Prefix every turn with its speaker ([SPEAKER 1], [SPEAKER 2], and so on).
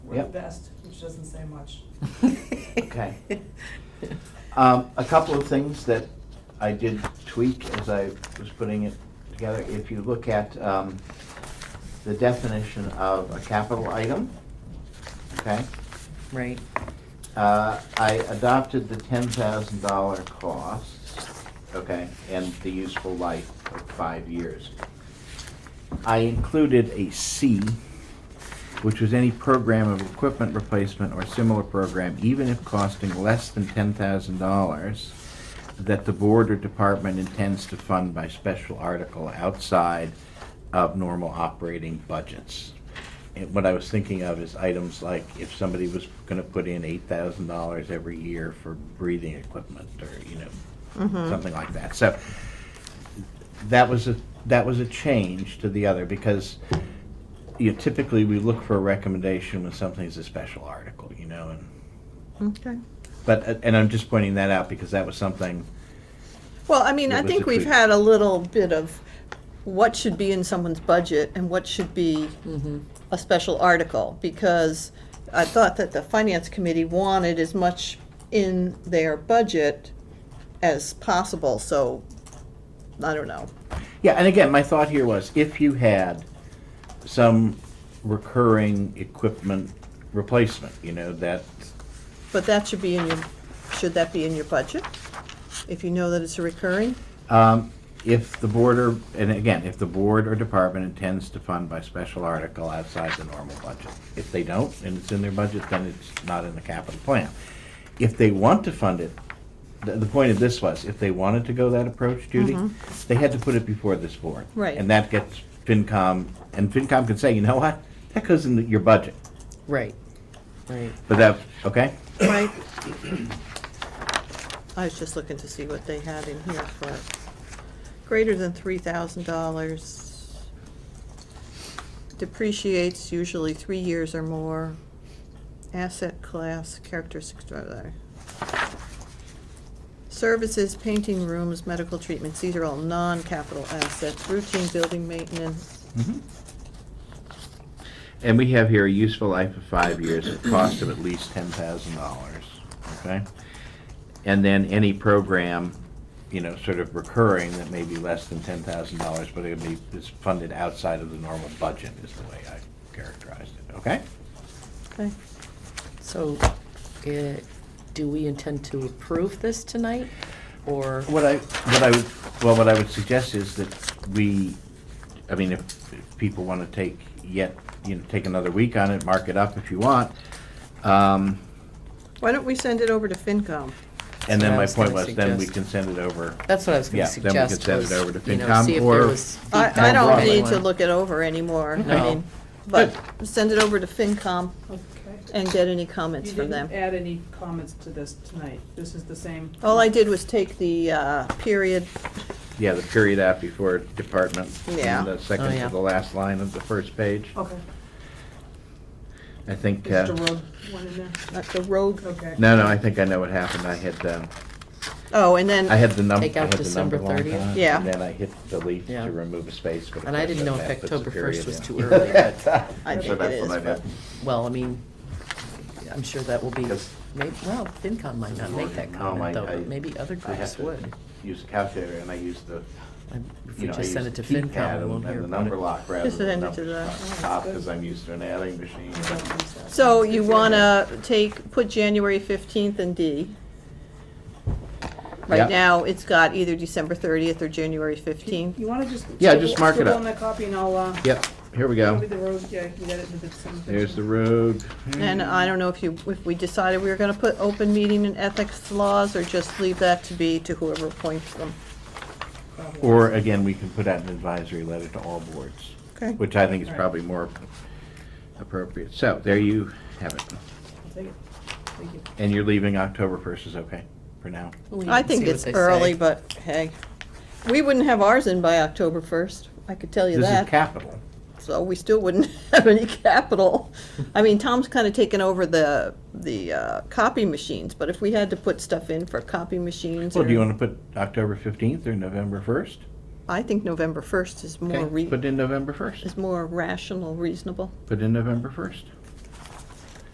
[SPEAKER 1] We're the
[SPEAKER 2] Yep.
[SPEAKER 1] best, which doesn't say much.
[SPEAKER 2] Okay. Um, a couple of things that I did tweak as I was putting it together. If you look at, um, the definition of a capital item, okay?
[SPEAKER 3] Right,
[SPEAKER 2] Uh, I adopted the ten thousand dollar cost, okay, and the useful life of five years. I included a C, which was any program of equipment replacement or similar program, even if costing less than ten thousand dollars, that the board or department intends to fund by special article outside of normal operating budgets. And what I was thinking of is items like if somebody was gonna put in eight thousand dollars every year for breathing equipment or, you know, something like that. So that was a, that was a change to the other because, you know, typically we look for a recommendation when something's a special article, you know, and,
[SPEAKER 3] okay.
[SPEAKER 2] but, and I'm just pointing that out because that was something,
[SPEAKER 3] Well, I mean,
[SPEAKER 2] It
[SPEAKER 3] I
[SPEAKER 2] was a
[SPEAKER 3] think we've
[SPEAKER 2] treat.
[SPEAKER 3] had a little bit of what should be in someone's budget and what should be a special article, because I thought that the finance committee wanted as much in their budget as possible, so, I don't know.
[SPEAKER 2] Yeah, and again, my thought here was if you had some recurring equipment replacement, you know, that,
[SPEAKER 3] But that should be in your, should that be in your budget? If you know that it's a recurring?
[SPEAKER 2] um, if the board or, and again, if the board or department intends to fund by special article outside the normal budget. If they don't, and it's in their budget, then it's not in the capital plan. If they want to fund it, the, the point of this was, if they wanted to go that approach, Judy, they had to put it before this board.
[SPEAKER 3] Right.
[SPEAKER 2] And that gets FinCom, and FinCom can say, you know what, that goes in your budget.
[SPEAKER 4] Right, right.
[SPEAKER 2] But that, okay,
[SPEAKER 3] Right. I was just looking to see what they had in here for greater than three thousand dollars. Depreciates usually three years or more. Asset class, characteristics, blah, blah, blah. Services, painting rooms, medical treatments, these are all non-capital assets, routine building maintenance.
[SPEAKER 2] Mm-hmm. and we have here a useful life of five years at cost of at least ten thousand dollars, okay? And then any program, you know, sort of recurring that may be less than ten thousand dollars, but it be, it's funded outside of the normal budget is the way I characterized it, okay?
[SPEAKER 3] Okay,
[SPEAKER 4] So, uh, do we intend to approve this tonight, or?
[SPEAKER 2] What I, what I, would- well, what I would suggest is that we, I mean, if, if people wanna take yet, you know, take another week on it, mark it up if you want. Um,
[SPEAKER 3] why don't we send it over to FinCom?
[SPEAKER 2] And then
[SPEAKER 4] That's what I
[SPEAKER 2] my
[SPEAKER 4] was
[SPEAKER 2] point
[SPEAKER 4] gonna
[SPEAKER 2] was, then we
[SPEAKER 4] suggest.
[SPEAKER 2] can send it over.
[SPEAKER 4] That's what I was
[SPEAKER 2] Yeah,
[SPEAKER 4] gonna
[SPEAKER 2] then we could
[SPEAKER 4] suggest,
[SPEAKER 2] send it
[SPEAKER 4] was,
[SPEAKER 2] over to
[SPEAKER 4] you know,
[SPEAKER 2] FinCom
[SPEAKER 4] see if
[SPEAKER 2] or-
[SPEAKER 4] there was.
[SPEAKER 3] I, I don't
[SPEAKER 2] broadly.
[SPEAKER 3] need to look it over anymore, I
[SPEAKER 4] No.
[SPEAKER 3] mean, but send it over to FinCom
[SPEAKER 1] Okay.
[SPEAKER 3] and get any comments from them.
[SPEAKER 1] You didn't add any comments to this tonight. This is the same.
[SPEAKER 3] All I did was take the, uh, period,
[SPEAKER 2] Yeah, the period out before department. and
[SPEAKER 3] Yeah.
[SPEAKER 2] The
[SPEAKER 4] Oh,
[SPEAKER 2] second
[SPEAKER 4] yeah. Oh,
[SPEAKER 2] to the last line of the first page.
[SPEAKER 1] Okay.
[SPEAKER 2] I think,
[SPEAKER 1] Is
[SPEAKER 2] uh,
[SPEAKER 1] the road one in there?
[SPEAKER 3] uh, the rogue,
[SPEAKER 1] Okay.
[SPEAKER 2] no, no, I think I know what happened. I had, um,
[SPEAKER 3] oh, and
[SPEAKER 2] I
[SPEAKER 3] then,
[SPEAKER 2] had the number, I
[SPEAKER 4] Take out
[SPEAKER 2] had the
[SPEAKER 4] December
[SPEAKER 2] number long
[SPEAKER 4] 30th?
[SPEAKER 2] time,
[SPEAKER 3] Yeah.
[SPEAKER 2] And then I hit delete
[SPEAKER 4] Yeah.
[SPEAKER 2] to remove a space, but. of
[SPEAKER 4] And I
[SPEAKER 2] course
[SPEAKER 4] didn't
[SPEAKER 2] then
[SPEAKER 4] know if
[SPEAKER 2] that puts a
[SPEAKER 4] October
[SPEAKER 2] period
[SPEAKER 4] 1st was
[SPEAKER 2] in.
[SPEAKER 4] too early, but,
[SPEAKER 3] I
[SPEAKER 2] So
[SPEAKER 3] think it
[SPEAKER 2] that's
[SPEAKER 3] is,
[SPEAKER 2] what I
[SPEAKER 3] but,
[SPEAKER 2] meant.
[SPEAKER 4] well, I mean, I'm sure that will be,
[SPEAKER 2] Yes.
[SPEAKER 4] maybe, well, FinCom might not make that
[SPEAKER 2] No,
[SPEAKER 4] comment,
[SPEAKER 2] I-
[SPEAKER 4] though,
[SPEAKER 2] I-
[SPEAKER 4] but maybe other
[SPEAKER 2] Oh, I have
[SPEAKER 4] groups
[SPEAKER 2] to
[SPEAKER 4] would.
[SPEAKER 2] Use a calculator and I used the,
[SPEAKER 4] I'm- If
[SPEAKER 2] you
[SPEAKER 4] we
[SPEAKER 2] know, I
[SPEAKER 4] just
[SPEAKER 2] used
[SPEAKER 4] send it to
[SPEAKER 2] the
[SPEAKER 4] FinCom,
[SPEAKER 2] keypad
[SPEAKER 4] we won't
[SPEAKER 2] and-
[SPEAKER 4] hear
[SPEAKER 2] and the
[SPEAKER 4] about
[SPEAKER 2] number
[SPEAKER 4] it.
[SPEAKER 2] lock rather
[SPEAKER 3] Just
[SPEAKER 2] than the
[SPEAKER 3] send it to
[SPEAKER 2] number
[SPEAKER 3] the-
[SPEAKER 2] top, because I'm used to an adding machine.
[SPEAKER 1] I don't use that.
[SPEAKER 3] so you wanna take, put January fifteenth and D.
[SPEAKER 2] Yeah.
[SPEAKER 3] Right now, it's got either December thirtieth or January fifteenth,
[SPEAKER 1] You wanna just.
[SPEAKER 2] Yeah, just mark it
[SPEAKER 1] scribble
[SPEAKER 2] up.
[SPEAKER 1] on that copy and I'll, uh.
[SPEAKER 2] Yep, here we
[SPEAKER 1] I'll be
[SPEAKER 2] go.
[SPEAKER 1] the road, yeah, you got it with the same.
[SPEAKER 2] There's the road.
[SPEAKER 3] and I don't know if you, if we decided we were gonna put open meeting and ethics laws, or just leave that to be to whoever appoints them.
[SPEAKER 2] Or again, we can put out an advisory letter to all boards,
[SPEAKER 3] Okay.
[SPEAKER 2] which I think is
[SPEAKER 1] Right.
[SPEAKER 2] probably more appropriate. So there you have it.
[SPEAKER 1] I'll take it. Thank you.
[SPEAKER 2] And you're leaving October 1st is okay for now?
[SPEAKER 4] We
[SPEAKER 3] I
[SPEAKER 4] can
[SPEAKER 3] think
[SPEAKER 4] see what
[SPEAKER 3] it's
[SPEAKER 4] they
[SPEAKER 3] early,
[SPEAKER 4] say.
[SPEAKER 3] but hey, we wouldn't have ours in by October first, I could tell you
[SPEAKER 2] This is
[SPEAKER 3] that.
[SPEAKER 2] capital.
[SPEAKER 3] So we still wouldn't have any capital. I mean, Tom's kind of taken over the, the uh, copy machines, but if we had to put stuff in for copy machines
[SPEAKER 2] Well, do you
[SPEAKER 3] or,
[SPEAKER 2] want to put October 15th or November 1st?
[SPEAKER 3] I think November first is more
[SPEAKER 2] Okay,
[SPEAKER 3] re,
[SPEAKER 2] Put in November 1st.
[SPEAKER 3] is more rational, reasonable.
[SPEAKER 2] Put in November 1st.